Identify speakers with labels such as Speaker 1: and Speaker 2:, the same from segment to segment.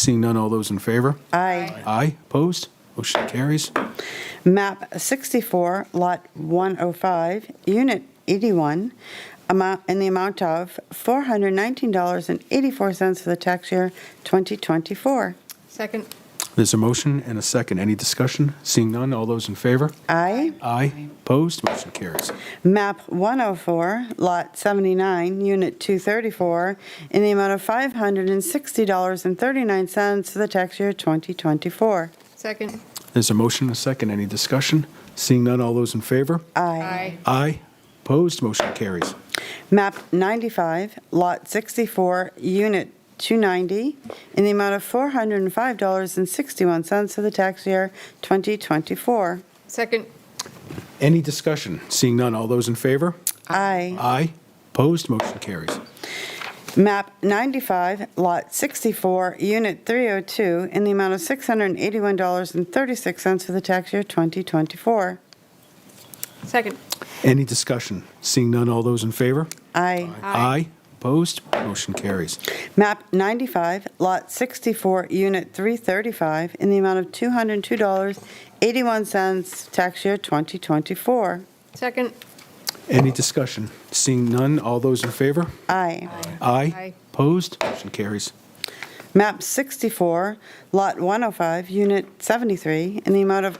Speaker 1: Seeing none, all those in favor?
Speaker 2: Aye.
Speaker 1: Aye, opposed? Motion carries.
Speaker 2: Map 64, Lot 105, Unit 81, amount, in the amount of $419.84 for the tax year 2024.
Speaker 3: Second.
Speaker 1: There's a motion and a second. Any discussion? Seeing none, all those in favor?
Speaker 2: Aye.
Speaker 1: Aye, opposed? Motion carries.
Speaker 2: Map 104, Lot 79, Unit 234, in the amount of $560.39 for the tax year 2024.
Speaker 3: Second.
Speaker 1: There's a motion and a second. Any discussion? Seeing none, all those in favor? Aye, opposed? Motion carries.
Speaker 2: Map 95, Lot 64, Unit 290, in the amount of $405.61 for the tax year 2024.
Speaker 3: Second.
Speaker 1: Any discussion? Seeing none, all those in favor?
Speaker 2: Aye.
Speaker 1: Aye, opposed? Motion carries.
Speaker 2: Map 95, Lot 64, Unit 302, in the amount of $681.36 for the tax year 2024.
Speaker 3: Second.
Speaker 1: Any discussion? Seeing none, all those in favor?
Speaker 2: Aye.
Speaker 1: Aye, opposed? Motion carries.
Speaker 2: Map 95, Lot 64, Unit 335, in the amount of $202.81, tax year 2024.
Speaker 3: Second.
Speaker 1: Any discussion? Seeing none, all those in favor?
Speaker 2: Aye.
Speaker 1: Aye.
Speaker 3: Aye.
Speaker 1: Opposed? Motion carries.
Speaker 2: Map 64, Lot 105, Unit 73, in the amount of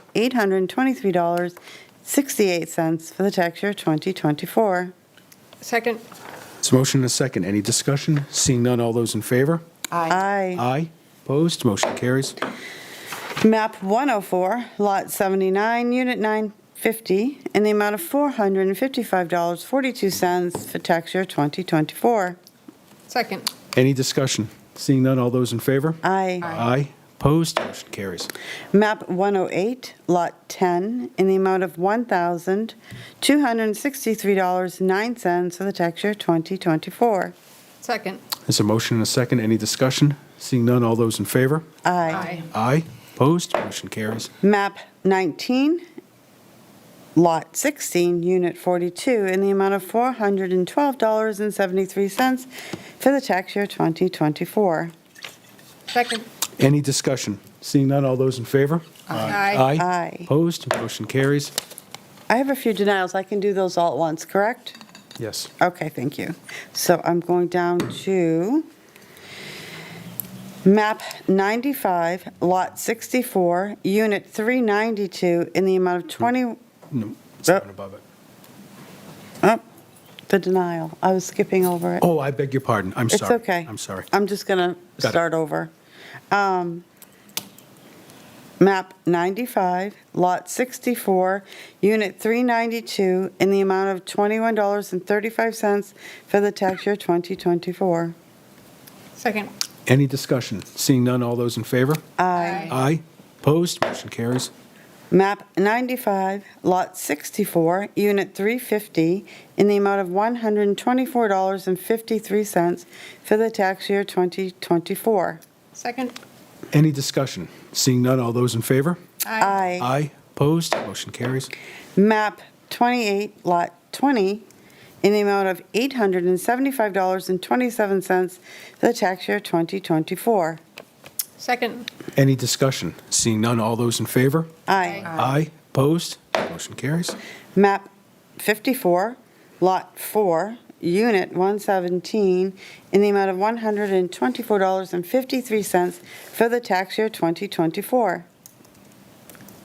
Speaker 2: $823.68 for the tax year 2024.
Speaker 3: Second.
Speaker 1: It's a motion and a second. Any discussion? Seeing none, all those in favor?
Speaker 2: Aye.
Speaker 1: Aye. Opposed? Motion carries.
Speaker 2: Map 104, Lot 79, Unit 950, in the amount of $455.42 for tax year 2024.
Speaker 3: Second.
Speaker 1: Any discussion? Seeing none, all those in favor?
Speaker 2: Aye.
Speaker 1: Aye. Opposed? Motion carries.
Speaker 2: Map 108, Lot 10, in the amount of $1,263.09 for the tax year 2024.
Speaker 3: Second.
Speaker 1: There's a motion and a second. Any discussion? Seeing none, all those in favor?
Speaker 2: Aye.
Speaker 1: Aye. Opposed? Motion carries.
Speaker 2: Map 19, Lot 16, Unit 42, in the amount of $412.73 for the tax year 2024.
Speaker 3: Second.
Speaker 1: Any discussion? Seeing none, all those in favor?
Speaker 3: Aye.
Speaker 2: Aye.
Speaker 1: Opposed? Motion carries.
Speaker 2: I have a few denials. I can do those all at once, correct?
Speaker 1: Yes.
Speaker 2: Okay, thank you. So I'm going down to map 95, lot 64, unit 392, in the amount of 20,
Speaker 1: No, it's the one above it.
Speaker 2: the denial. I was skipping over it.
Speaker 1: Oh, I beg your pardon. I'm
Speaker 2: It's
Speaker 1: sorry.
Speaker 2: okay.
Speaker 1: I'm sorry.
Speaker 2: I'm just going
Speaker 1: Got
Speaker 2: to
Speaker 1: it.
Speaker 2: start over. Um, Map 95, Lot 64, Unit 392, in the amount of $21.35 for the tax year 2024.
Speaker 3: Second.
Speaker 1: Any discussion? Seeing none, all those in favor?
Speaker 3: Aye.
Speaker 1: Aye. Opposed? Motion carries.
Speaker 2: Map 95, Lot 64, Unit 350, in the amount of $124.53 for the tax year 2024.
Speaker 3: Second.
Speaker 1: Any discussion? Seeing none, all those in favor?
Speaker 2: Aye.
Speaker 1: Aye. Opposed? Motion carries.
Speaker 2: MAP 28, Lot 20, in the amount of $875.27 for the tax year 2024.
Speaker 3: Second.
Speaker 1: Any discussion? Seeing none, all those in favor?
Speaker 2: Aye.
Speaker 1: Aye. Opposed? Motion carries.
Speaker 2: MAP 54, Lot 4, Unit 117, in the amount of $124.53 for the tax year 2024.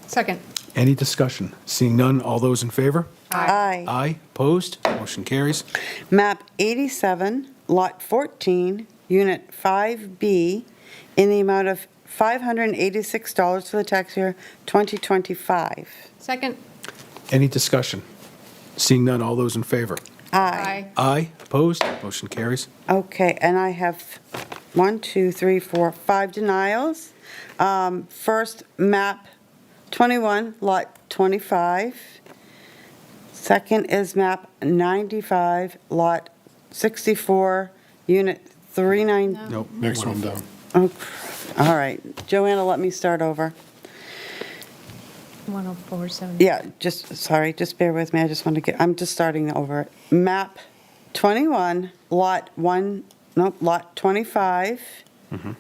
Speaker 3: Second.
Speaker 1: Any discussion? Seeing none, all those in favor?
Speaker 2: Aye.
Speaker 1: Aye. Opposed? Motion carries.
Speaker 2: MAP 87, Lot 14, Unit 5B, in the amount of $586 for the tax year 2025.
Speaker 3: Second.
Speaker 1: Any discussion? Seeing none, all those in favor? Aye. Opposed? Motion carries.
Speaker 2: Okay, and I have one, two, three, four, five denials. Um, First, map 21, lot 25. Second is map 95, lot 64, unit 390.
Speaker 1: Nope.
Speaker 4: Next one down.
Speaker 2: Oh, All right, Joanna, let me start over.
Speaker 3: 104.7.
Speaker 2: Yeah, just, sorry, just bear with me, I just want to get, I'm just starting over. Map 21, Lot 1, no, Lot 25,